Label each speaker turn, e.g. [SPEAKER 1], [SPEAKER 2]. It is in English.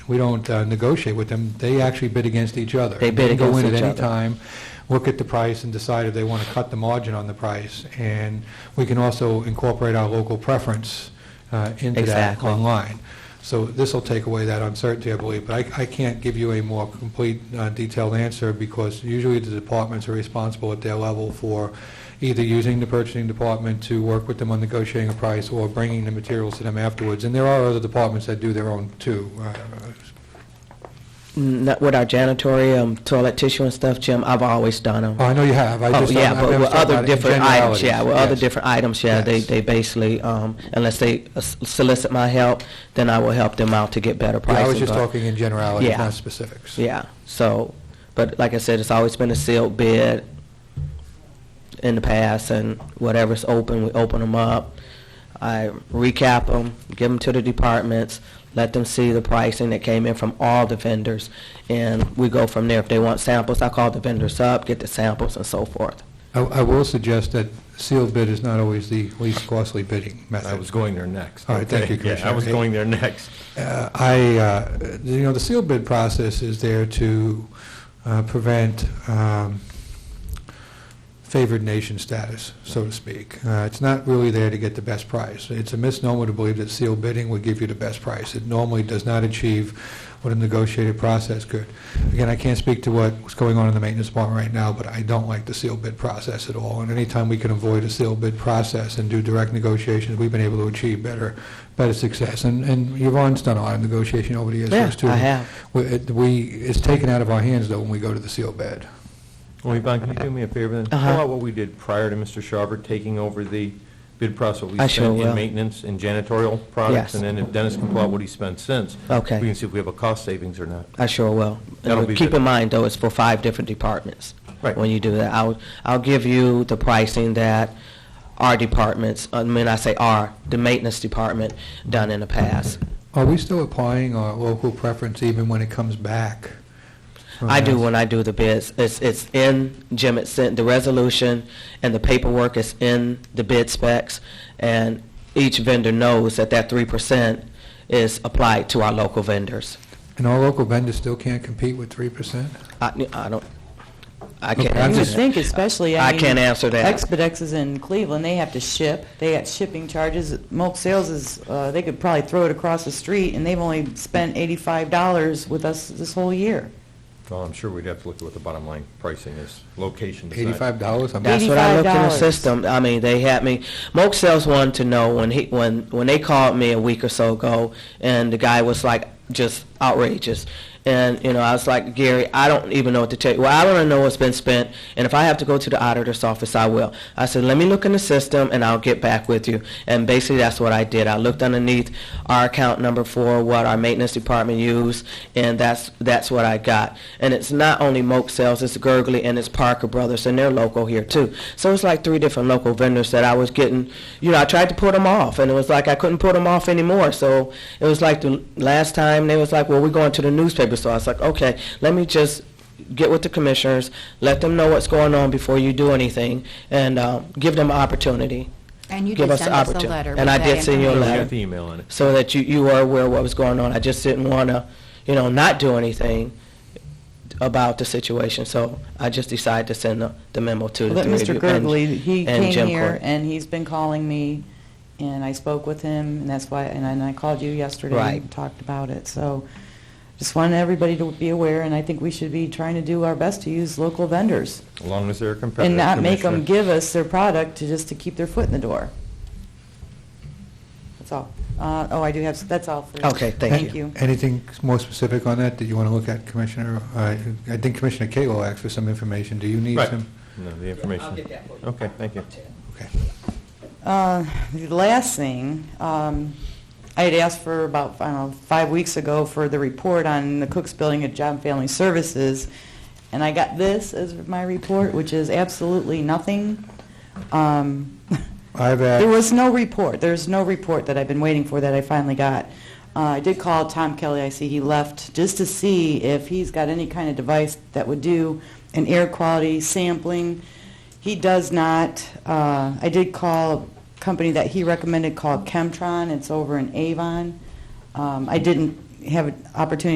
[SPEAKER 1] We don't uh, negotiate with them. They actually bid against each other.
[SPEAKER 2] They bid
[SPEAKER 1] can
[SPEAKER 2] against
[SPEAKER 1] Go in
[SPEAKER 2] each
[SPEAKER 1] at any
[SPEAKER 2] other.
[SPEAKER 1] time, look at the price, and decide if they want to cut the margin on the price. And we can also incorporate our local preference uh, into that
[SPEAKER 2] Exactly.
[SPEAKER 1] online. So this will take away that uncertainty, I believe. But I I can't give you a more complete, uh, detailed answer because usually the departments are responsible at their level for either using the purchasing department to work with them on negotiating a price or bringing the materials to them afterwards. And there are other departments that do their own, too. Uh,
[SPEAKER 2] Not with our janitorium, toilet tissue and stuff, Jim, I've always done them.
[SPEAKER 1] Oh, I know you have. I
[SPEAKER 2] Oh,
[SPEAKER 1] just,
[SPEAKER 2] yeah,
[SPEAKER 1] I'm
[SPEAKER 2] but
[SPEAKER 1] I'm
[SPEAKER 2] with
[SPEAKER 1] just talking
[SPEAKER 2] other
[SPEAKER 1] about in
[SPEAKER 2] different items, yeah, with other
[SPEAKER 1] generalities. Yes.
[SPEAKER 2] different items, yeah, they,
[SPEAKER 1] Yes.
[SPEAKER 2] they basically, um, unless they uh, s- solicit my help, then I will help them out to get better
[SPEAKER 1] Yeah,
[SPEAKER 2] pricing.
[SPEAKER 1] I was just
[SPEAKER 2] but-
[SPEAKER 1] talking in generalities,
[SPEAKER 2] Yeah.
[SPEAKER 1] not specifics.
[SPEAKER 2] Yeah, so, but like I said, it's always been a sealed bid in the past, and whatever's open, we open them up. I recap them, give them to the departments, let them see the pricing that came in from all the vendors, and we go from there. If they want samples, I call the vendors up, get the samples and so forth.
[SPEAKER 1] I I will suggest that sealed bid is not always the least costly bidding method.
[SPEAKER 3] I was going there next.
[SPEAKER 1] All right, thank
[SPEAKER 3] Okay.
[SPEAKER 1] you,
[SPEAKER 3] Yeah, I
[SPEAKER 1] Commissioner.
[SPEAKER 3] was going there next.
[SPEAKER 1] Uh, I, uh, you know, the sealed bid process is there to uh, prevent um, favored nation status, so to speak. Uh, It's not really there to get the best price. It's a misnomer to believe that sealed bidding would give you the best price. It normally does not achieve what a negotiated process could. Again, I can't speak to what's going on in the maintenance department right now, but I don't like the sealed bid process at all. And anytime we can avoid a sealed bid process and do direct negotiations, we've been able to achieve better, better success. And and Yvonne's done a lot of negotiation over the years for
[SPEAKER 2] Yeah,
[SPEAKER 1] us, too.
[SPEAKER 2] I have.
[SPEAKER 1] We, it- we- it's taken out of our hands, though, when we go to the sealed bid.
[SPEAKER 3] Well, Yvonne, can you do me a favor then?
[SPEAKER 2] Uh-huh.
[SPEAKER 3] Fill out what we did prior to Mr. Sharber taking over the bid process. what we
[SPEAKER 2] I sure
[SPEAKER 3] spent
[SPEAKER 2] will.
[SPEAKER 3] In maintenance and janitorial products.
[SPEAKER 2] Yes.
[SPEAKER 3] And then if Dennis can pull out what he spent since.
[SPEAKER 2] Okay.
[SPEAKER 3] We can see if we have a cost savings or not.
[SPEAKER 2] I sure will.
[SPEAKER 3] That'll
[SPEAKER 2] And
[SPEAKER 3] be
[SPEAKER 2] Keep
[SPEAKER 3] good.
[SPEAKER 2] in mind, though, it's for five different departments.
[SPEAKER 3] Right.
[SPEAKER 2] When you do that, I'll, I'll give you the pricing that our departments, I mean, I say our, the maintenance department done in the past.
[SPEAKER 1] Are we still applying our local preference even when it comes back?
[SPEAKER 3] Oh,
[SPEAKER 1] Uh,
[SPEAKER 2] I do when I do the bids. It's, it's in Jim, it's in the resolution and the paperwork is in the bid specs. And each vendor knows that that three percent is applied to our local vendors.
[SPEAKER 1] And our local vendors still can't compete with 3%?
[SPEAKER 2] I, I don't, I
[SPEAKER 1] Okay,
[SPEAKER 2] can't
[SPEAKER 1] I'm
[SPEAKER 2] answer
[SPEAKER 4] You would
[SPEAKER 1] just-
[SPEAKER 2] that.
[SPEAKER 4] think especially,
[SPEAKER 2] I
[SPEAKER 4] I mean...
[SPEAKER 2] can't answer that.
[SPEAKER 4] Expedex is in Cleveland, they have to ship, they got shipping charges. Mulch Sales is, uh, they could probably throw it across the street, and they've only spent $85 with us this whole year.
[SPEAKER 3] Well, I'm sure we'd have to look at what the bottom line pricing is, location. aside.
[SPEAKER 1] $85? I'm-
[SPEAKER 2] That's what I looked in the
[SPEAKER 4] $85.
[SPEAKER 2] system. I mean, they had me. Moke Sales wanted to know when he when when they called me a week or so ago, and the guy was like just outrageous. And you know, I was like, Gary, I don't even know what to tell you. Well, I want to know what's been spent, and if I have to go to the auditor's office, I will. I said, let me look in the system, and I'll get back with you. And basically, that's what I did. I looked underneath our account number for what our maintenance department used, and that's that's what I got. And it's not only Moke Sales, it's Gurgley and it's Parker Brothers, and they're local here too. So it's like three different local vendors that I was getting. You know, I tried to put them off, and it was like I couldn't put them off anymore. So it was like the last time they was like, "Well, we're going to the newspaper." So I was like, "Okay, let me just." Get with the commissioners, let them know what's going on before you do anything, and uh, give them an opportunity.
[SPEAKER 5] And you
[SPEAKER 2] give
[SPEAKER 5] did
[SPEAKER 2] us
[SPEAKER 5] send
[SPEAKER 2] the
[SPEAKER 5] us a
[SPEAKER 2] opportu-
[SPEAKER 5] letter.
[SPEAKER 2] and
[SPEAKER 5] with
[SPEAKER 2] I
[SPEAKER 5] that
[SPEAKER 2] did send you a
[SPEAKER 3] Yeah, we
[SPEAKER 5] information.
[SPEAKER 2] letter.
[SPEAKER 3] got the email in it.
[SPEAKER 2] so that you, you were aware of what was going on. I just didn't want to, you know, not do anything about the situation, so I just decided to send the, the memo to the
[SPEAKER 4] But
[SPEAKER 2] three of
[SPEAKER 4] Mr.
[SPEAKER 2] you and-
[SPEAKER 4] Gurgley, he
[SPEAKER 2] and
[SPEAKER 4] came
[SPEAKER 2] Jim
[SPEAKER 4] here,
[SPEAKER 2] Court.
[SPEAKER 4] and he's been calling me, and I spoke with him, and that's why, and I- and I called you yesterday
[SPEAKER 2] Right.
[SPEAKER 4] and talked about it, so just wanted everybody to be aware, and I think we should be trying to do our best to use local vendors,
[SPEAKER 3] As long as they're competitive.
[SPEAKER 4] and not make them
[SPEAKER 3] Commissioner.
[SPEAKER 4] give us their product to, just to keep their foot in the door. That's all. Uh, Oh, I do have, that's all for...
[SPEAKER 2] Okay, thank
[SPEAKER 4] Thank you.
[SPEAKER 1] Anything more specific on that that you want to look at, Commissioner? I I think Commissioner Kalo asked for some information. Do you need
[SPEAKER 3] Right.
[SPEAKER 1] some?
[SPEAKER 3] No, the information. Okay, thank you.
[SPEAKER 1] Okay.
[SPEAKER 4] Uh, The last thing, um, I had asked for about, I don't know, five weeks ago for the report on the Cooks Building at Job and Family Services, and I got this as my report, which is absolutely nothing. Um,
[SPEAKER 1] I've
[SPEAKER 4] There
[SPEAKER 1] asked,
[SPEAKER 4] was no report, there's no report that I've been waiting for that I finally got. Uh, I did call Tom Kelly, I see he left, just to see if he's got any kind of device that would do an air quality sampling. He does not. Uh, I did call a company that he recommended called Chemtron, it's over in Avon. Um, I didn't have an opportunity